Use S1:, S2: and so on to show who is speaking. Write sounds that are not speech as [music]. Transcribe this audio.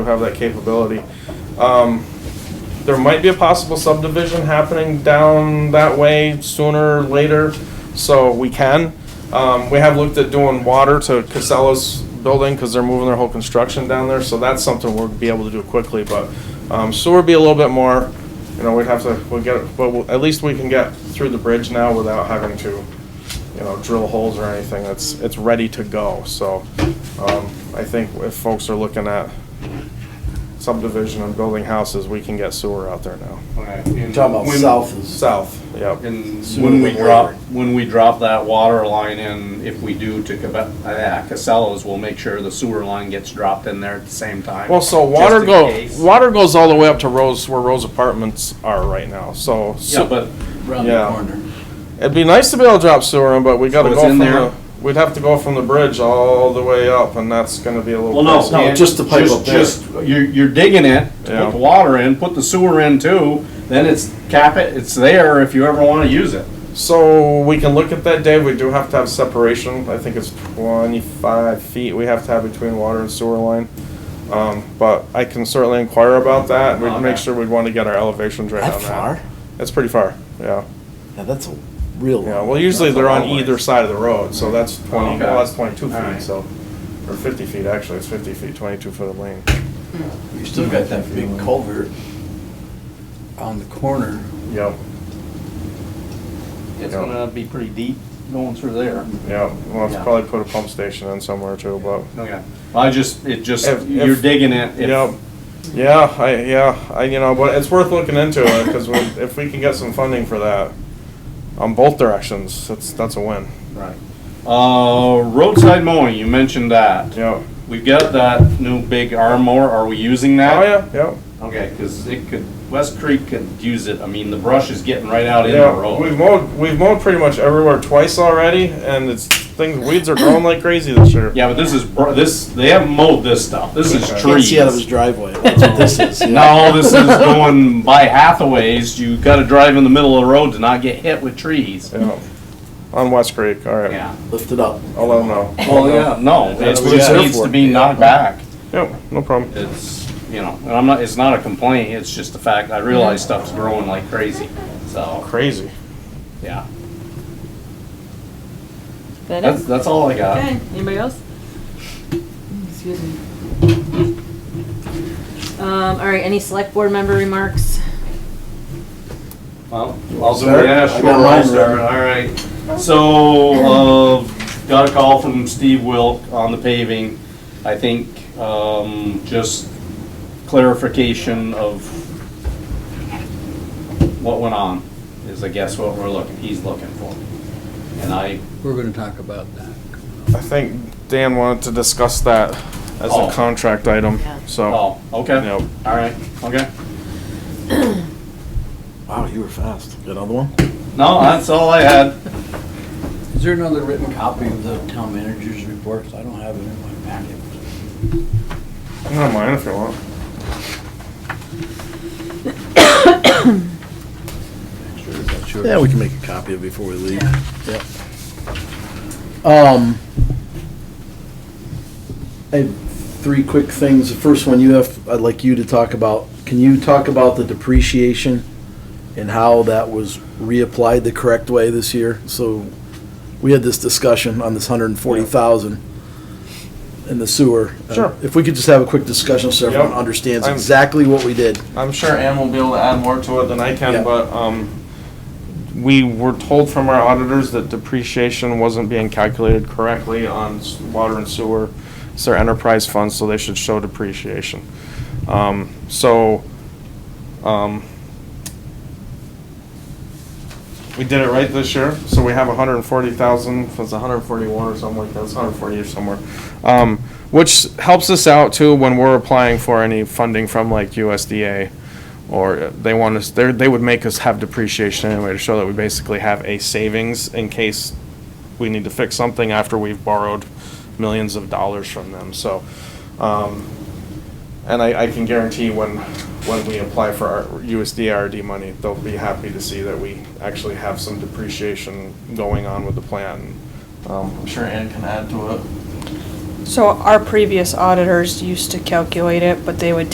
S1: We have that capability. Um, there might be a possible subdivision happening down that way sooner or later, so we can. Um, we have looked at doing water to Casella's building, cause they're moving their whole construction down there, so that's something we'll be able to do quickly, but, um, sewer would be a little bit more, you know, we'd have to, we'll get, it- but we'll- at least we can get through the bridge now without having to, you know, drill holes or anything, it's, it's ready to go, so, um, I think if folks are looking at subdivision and building houses, we can get sewer out there now.
S2: Right.
S3: You're Talking about south is,
S1: South, yep.
S2: And
S3: Sooner
S2: when we
S3: than later.
S2: drop, when we drop that water line in, if we do to Cabe- uh, Casellas, we'll make sure the sewer line gets dropped in there at the same time.
S1: Well, so
S2: just
S1: water
S2: in
S1: go,
S2: case.
S1: water goes all the way up to Rose, where Rose Apartments are right now, so.
S2: Yeah, but
S3: around the
S1: Yeah.
S3: corner.
S1: It'd be nice to be able to drop sewer in, but we gotta
S2: So
S1: go
S2: it's
S1: from
S2: in there?
S1: the, we'd have to go from the bridge all the way up, and that's gonna be a little.
S2: Well, no.
S1: pricey.
S3: No, just the pipe
S2: just-
S3: up there.
S2: Just, you're, you're digging it, to
S1: Yeah.
S2: put the water in, put the sewer in too, then it's cap it, it's there if you ever wanna use it.
S1: So we can look at that, Dave, we do have to have separation, I think it's twenty-five feet we have to have between water and sewer line. Um, but I can certainly inquire about that, we'd make
S2: Oh, Okay.
S1: sure we'd wanna get our elevations right on
S3: That
S1: that.
S3: far?
S1: That's pretty far, yeah.
S3: Yeah, that's a real.
S1: Yeah, well, usually
S2: That's a
S1: they're
S2: long
S1: on
S2: ways.
S1: either side of the road, so that's twenty, well,
S2: Okay.
S1: that's twenty-two feet,
S2: Alright.
S1: so, or fifty feet, actually, it's fifty feet, twenty-two foot of lane.
S3: You still got that big culvert on the corner.
S1: Yep,
S2: It's
S1: Yeah.
S2: gonna be pretty deep going through there.
S1: yep, we'll have to
S2: Yeah.
S1: probably put a pump station in somewhere too, but,
S2: Okay. Oh, I just, it just,
S1: If- if-
S2: you're digging it. if-
S1: yep. Yeah, I, yeah, I, you know, but it's worth looking into it, because if we can get some funding for that, on both directions, that's, that's a win,
S2: Right. Uh, roadside mowing, you mentioned that.
S1: yep.
S2: We've got that new big arm mower, are we using that?
S1: Oh, yeah, yep,
S2: Okay, cause it could, West Creek could use it, I mean, the brush is getting right out in the
S1: yeah, we've
S2: road.
S1: mowed, we've mowed pretty much everywhere twice already, and it's, things, weeds are growing like crazy this year.
S2: Yeah, but this is, br- this, they haven't mowed this stuff, this is
S1: Okay.
S2: trees.
S3: Can't see out of his driveway. That's what
S4: [laughs]
S3: this is. yeah.
S2: No, this is going by Hathaways, you gotta drive in the middle of the road to not get hit with trees.
S1: Yeah, on West Creek, all right.
S2: Yeah.
S3: Lift it up.
S1: I'll let 'em know.
S2: Well, yeah, no, it
S1: That's what it's
S2: just
S1: there
S2: needs
S1: for.
S2: to be knocked back.
S1: Yep, no problem.
S2: It's, you know, and I'm not, it's not a complaint, it's just a fact, I realize stuff's growing like crazy, so,
S1: Crazy.
S2: yeah.
S5: That
S2: That's,
S5: is.
S2: that's all I got.
S5: Okay, anybody else? Excuse me. Um, all right, any select board member remarks?
S2: Well, I'll zoom
S3: Sir?
S2: in. Yeah,
S3: I
S2: sure,
S3: got mine
S2: I'll start. All right. So, uh, got a call from Steve Wilk on the paving. I think, um, just clarification of what went on is, I guess, what we're looking, he's looking for. And I,
S4: We're gonna talk about that.
S1: I think Dan wanted to discuss that as
S2: Oh.
S1: a contract item,
S5: Yeah.
S1: so.
S2: oh, okay, all
S1: Yep.
S2: right, okay.
S3: Wow, you were fast. Got another one?
S2: No, that's all I had.
S4: Is there another written copy of the town manager's report? I don't have it in my packet.
S1: I don't mind if you want.
S3: Yeah, we can make a copy of it before we leave. Yep. Um, I have three quick things. The first one you have, I'd like you to talk about. Can you talk about the depreciation and how that was reapplied the correct way this year? So we had this discussion on this hundred and forty thousand in the sewer.
S1: Sure.
S3: If we could just have a quick discussion so everyone
S1: Yep.
S3: understands
S1: I'm-
S3: exactly what we did.
S1: I'm sure Ann will be able to add more to it than I
S3: Yeah.
S1: can, but, um, we were told from our auditors that depreciation wasn't being calculated correctly on s- water and sewer. It's their enterprise fund, so they should show depreciation. Um, so, um, we did it right this year, so we have hundred and forty thousand, if it's hundred and forty-one or something like that, it's hundred and forty or somewhere. Um, which helps us out too when we're applying for any funding from like USDA. Or they want us, they they would make us have depreciation anyway to show that we basically have a savings in case we need to fix something after we've borrowed millions of dollars from them, so. Um, and I, I can guarantee when, when we apply for our USDRD money, they'll be happy to see that we actually have some depreciation going on with the plan. Um, I'm sure Ann can add to it.
S6: So our previous auditors used to calculate it, but they would